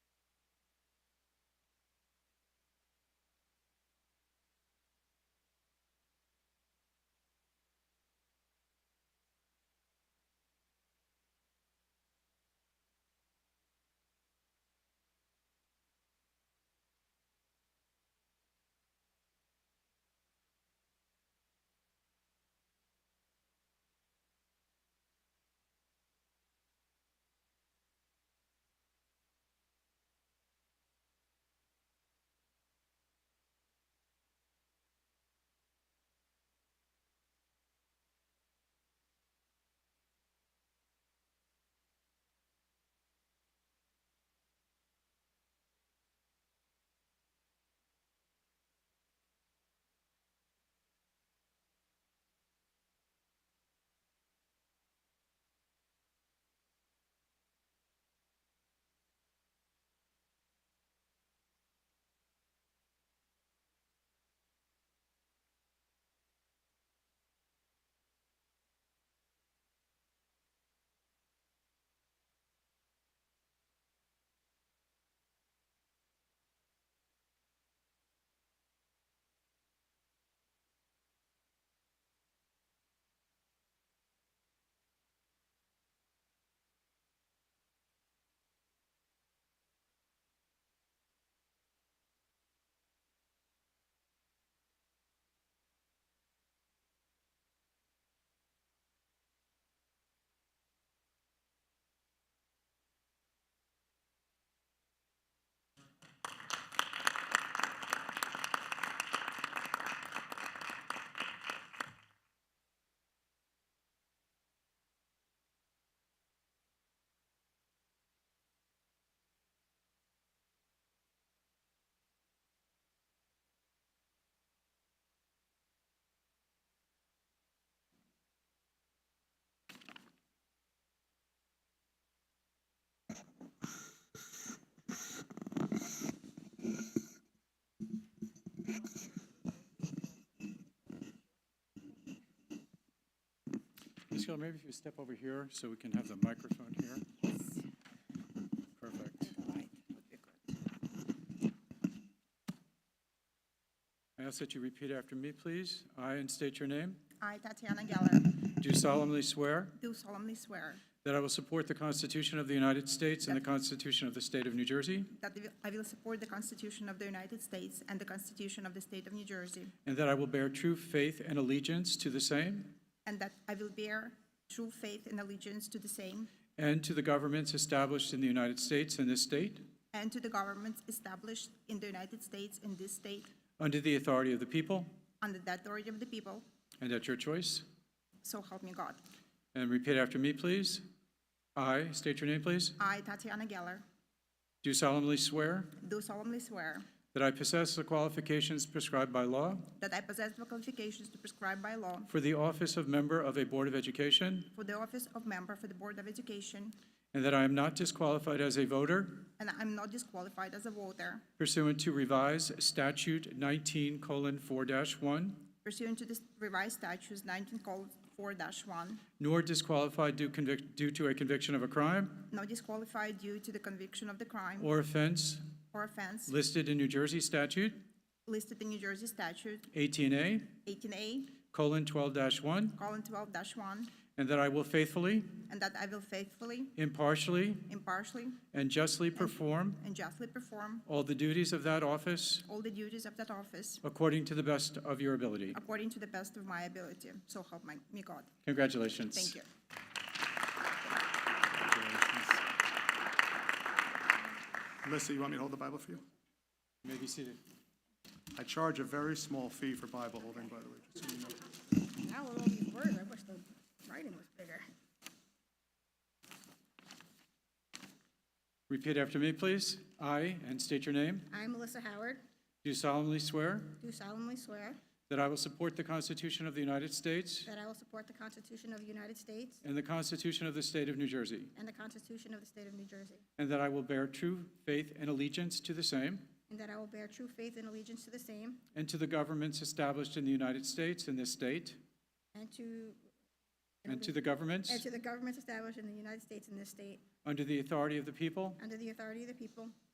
Michelle, maybe if you step over here so we can have the microphone here. Perfect. I ask that you repeat after me, please. I, and state your name, I, Tatiana Geller, do solemnly swear do solemnly swear that I will support the Constitution of the United States and the Constitution of the State of New Jersey, that the- I will support the Constitution of the United States and the Constitution of the State of New Jersey, and that I will bear true faith and allegiance to the same and that I will bear true faith and allegiance to the same and to the governments established in the United States and this state, and to the governments established in the United States and this state under the authority of the people, under the authority of the people, and at your choice. so help me God. And repeat after me, please. I, state your name, please, I, Tatiana Geller, do solemnly swear do solemnly swear that I possess the qualifications prescribed by law that I possess the qualifications to prescribe by law for the office of member of a Board of Education, for the office of member for the Board of Education, and that I am not disqualified as a voter and I'm not disqualified as a voter pursuant to revised statute 19:4-1, pursuant to the revised statutes 19 four one, nor disqualified due convic- due to a conviction of a crime not disqualified due to the conviction of the crime or offense or offense listed in New Jersey Statute listed in New Jersey statute 18A:12-1, 18A, colon 12-1, colon 12 one, and that I will faithfully, and that I will faithfully, impartially, impartially, and justly perform and justly perform all the duties of that office all the duties of that office according to the best of your ability. according to the best of my ability, so help my- me God. Congratulations. Thank you. Melissa, you want me to hold the Bible for you? You may be seated. I charge a very small fee for Bible holding, by the way. just so you know. I don't know these words. I wish the writing was bigger. Repeat after me, please. I, and state your name, I, Melissa Howard, do solemnly swear do solemnly swear that I will support the Constitution of the United States that I will support the Constitution of the United States and the Constitution of the State of New Jersey, and the Constitution of the State of New Jersey, and that I will bear true faith and allegiance to the same and that I will bear true faith and allegiance to the same and to the governments established in the United States and this state, and to, and to the governments and to the governments established in the United States and this state, under the authority of the people, under the authority of the people,